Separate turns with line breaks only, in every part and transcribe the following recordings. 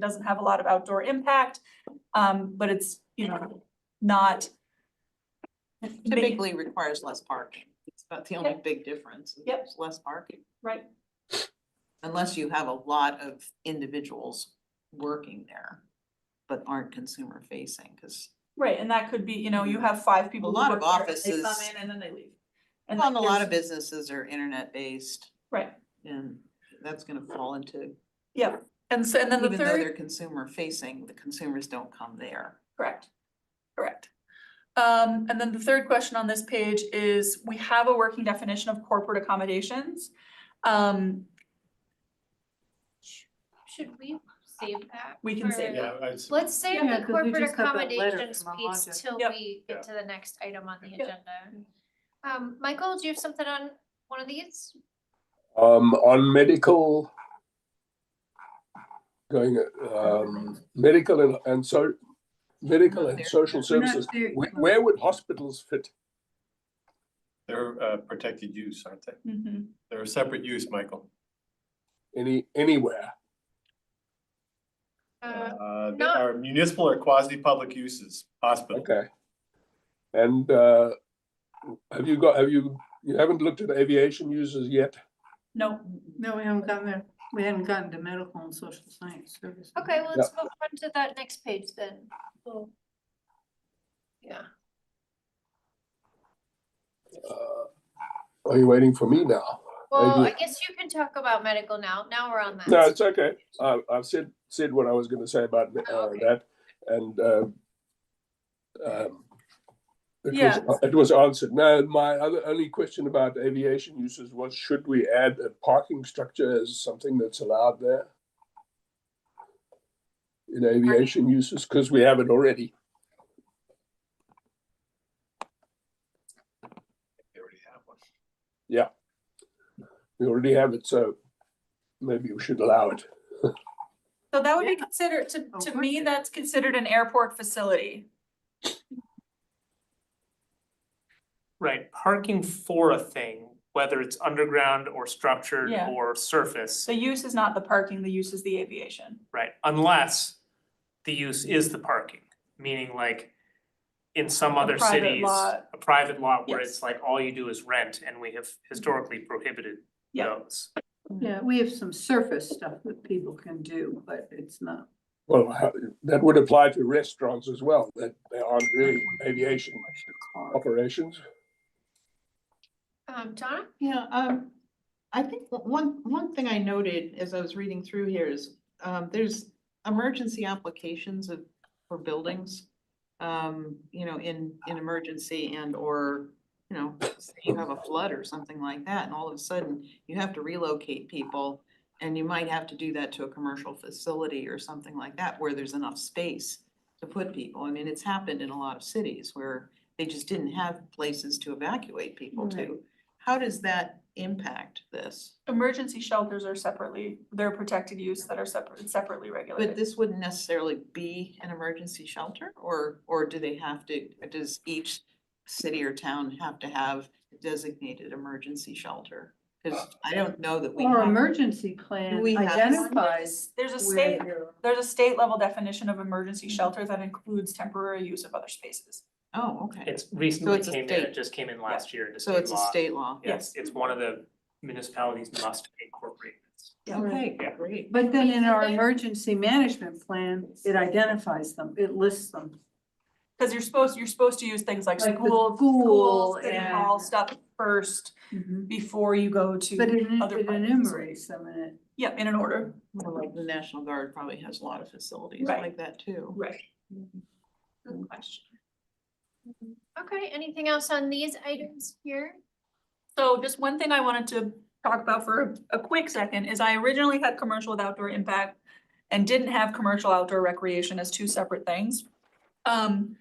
doesn't have a lot of outdoor impact. Um, but it's, you know, not. big-
Typically requires less parking. It's about the only
Yep.
big difference. is
Yep.
there's Less parking,
Right,
unless you have a lot of individuals working there, but aren't consumer facing, because
right, and that could be, you know, you have five people.
A
who
lot of
work there, and They come
offices-
in and then they leave. And
a lot
there's-
of businesses are internet based
Right,
and that's gonna fall into,
yeah, and so, and then the
even though
third,
they're consumer facing, the consumers don't come there.
correct, correct. Um, and then the third question on this page is, we have a working definition of corporate accommodations. Um,
Sh- Should we save that?
We can save
for-
that.
Yeah, I s-
Let's save
Yeah,
the
'cause we
corporate
just got that letter
accommodations
from
piece
Alondra.
till
Yep.
we
Yeah.
get to the next item on the
Yeah.
agenda. Um, Michael, do you have something on one of these?
Um, on medical, going, um, medical and, and so, medical and social
We're not
services.
there-
Where, where would hospitals fit?
they're uh, protected use, aren't they?
mhm.
They're a separate use, Michael.
Any, anywhere?
Uh,
Uh, they
not-
are municipal or quasi-public uses, hospital.
Okay. And, uh, have you got, have you, you haven't looked at aviation users yet?
No,
No, we haven't gotten there. We haven't gotten to medical and social science services.
okay, well, let's move on to that next page then. We'll- Yeah,
Uh, Are you waiting for me now?
well,
do.
I guess you can talk about medical now. Now we're on that.
No, it's okay. I, I've said, said what I was gonna say about uh,
Oh, okay.
that and, um, um,
Yeah.
it was, it was answered. No, my other, only question about aviation uses was, should we add a parking structure as something that's allowed there? In aviation uses, because we have it already.
They already have one.
We already have it, so maybe we should allow it.
so that would be considered, to,
Oh,
to
work
me,
it.
that's considered an airport facility.
Right, parking for a thing, whether it's underground or structured
Yeah.
or surface,
The use is not the parking, the use is the aviation.
right, unless the use is the parking, meaning like in some
A
other
private
cities,
lot.
a private lot where it's
Yes.
like all you do is rent and we have historically prohibited
Yeah.
those.
Yeah,
Mm-hmm.
we have some surface stuff that people can do, but it's not.
Well, how- that would apply to restaurants as well, that they aren't really aviation operations.
Um, Donna?
Yeah, um, I think o- one, one thing I noted as I was reading through here is, um, there's emergency applications of, for buildings. Um, you know, in, in emergency and or, you know, say you have a flood or something like that, and all of a sudden you have to relocate people. And you might have to do that to a commercial facility or something like that, where there's enough space to put people. I mean, it's happened in a lot of cities where they just didn't have places to evacuate people
Right.
to. How does that impact this?
Emergency shelters are separately, they're protected use that are separate, separately
But
regulated.
this wouldn't necessarily be an emergency shelter or, or do they have to, does each city or town have to have a designated emergency shelter? Cause I don't know that we
Or
have,
emergency plan
We have-
identifies
There's a
where Mm-hmm.
state,
you're-
there's a state level definition of emergency shelter that includes temporary use of other spaces.
oh, okay.
It's recently
it's a
came in,
state-
it just came in last year into state
So
law.
it's a state law.
Yes, it's one of the municipalities must incorporate this.
Okay,
Yeah.
great.
But then in our
Wait, is it-
emergency management plan, it identifies them, it lists them.
Cause you're supposed, you're supposed to use things like
Like the
school,
school
school, city
and-
hall stuff first
Mm-hmm.
before you go to.
But it
other
it
parts.
enumerates them and it.
Yep, in an order.
Well, Like the National Guard probably has a lot of facilities
Right.
like that too.
Right.
Good question. Okay, anything else on these items here?
So just one thing I wanted to talk about for a a quick second is I originally had commercial with outdoor impact and didn't have commercial outdoor recreation as two separate things. Um,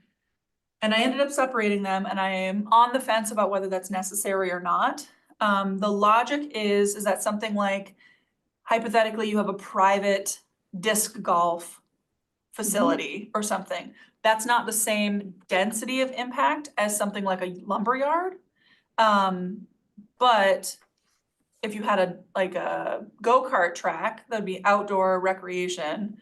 and I ended up separating them and I am on the fence about whether that's necessary or not. Um, the logic is, is that something like hypothetically, you have a private disc golf facility or something. That's not the same density of impact as something like a lumberyard. Um, but if you had a, like a go-kart track, that'd be outdoor recreation.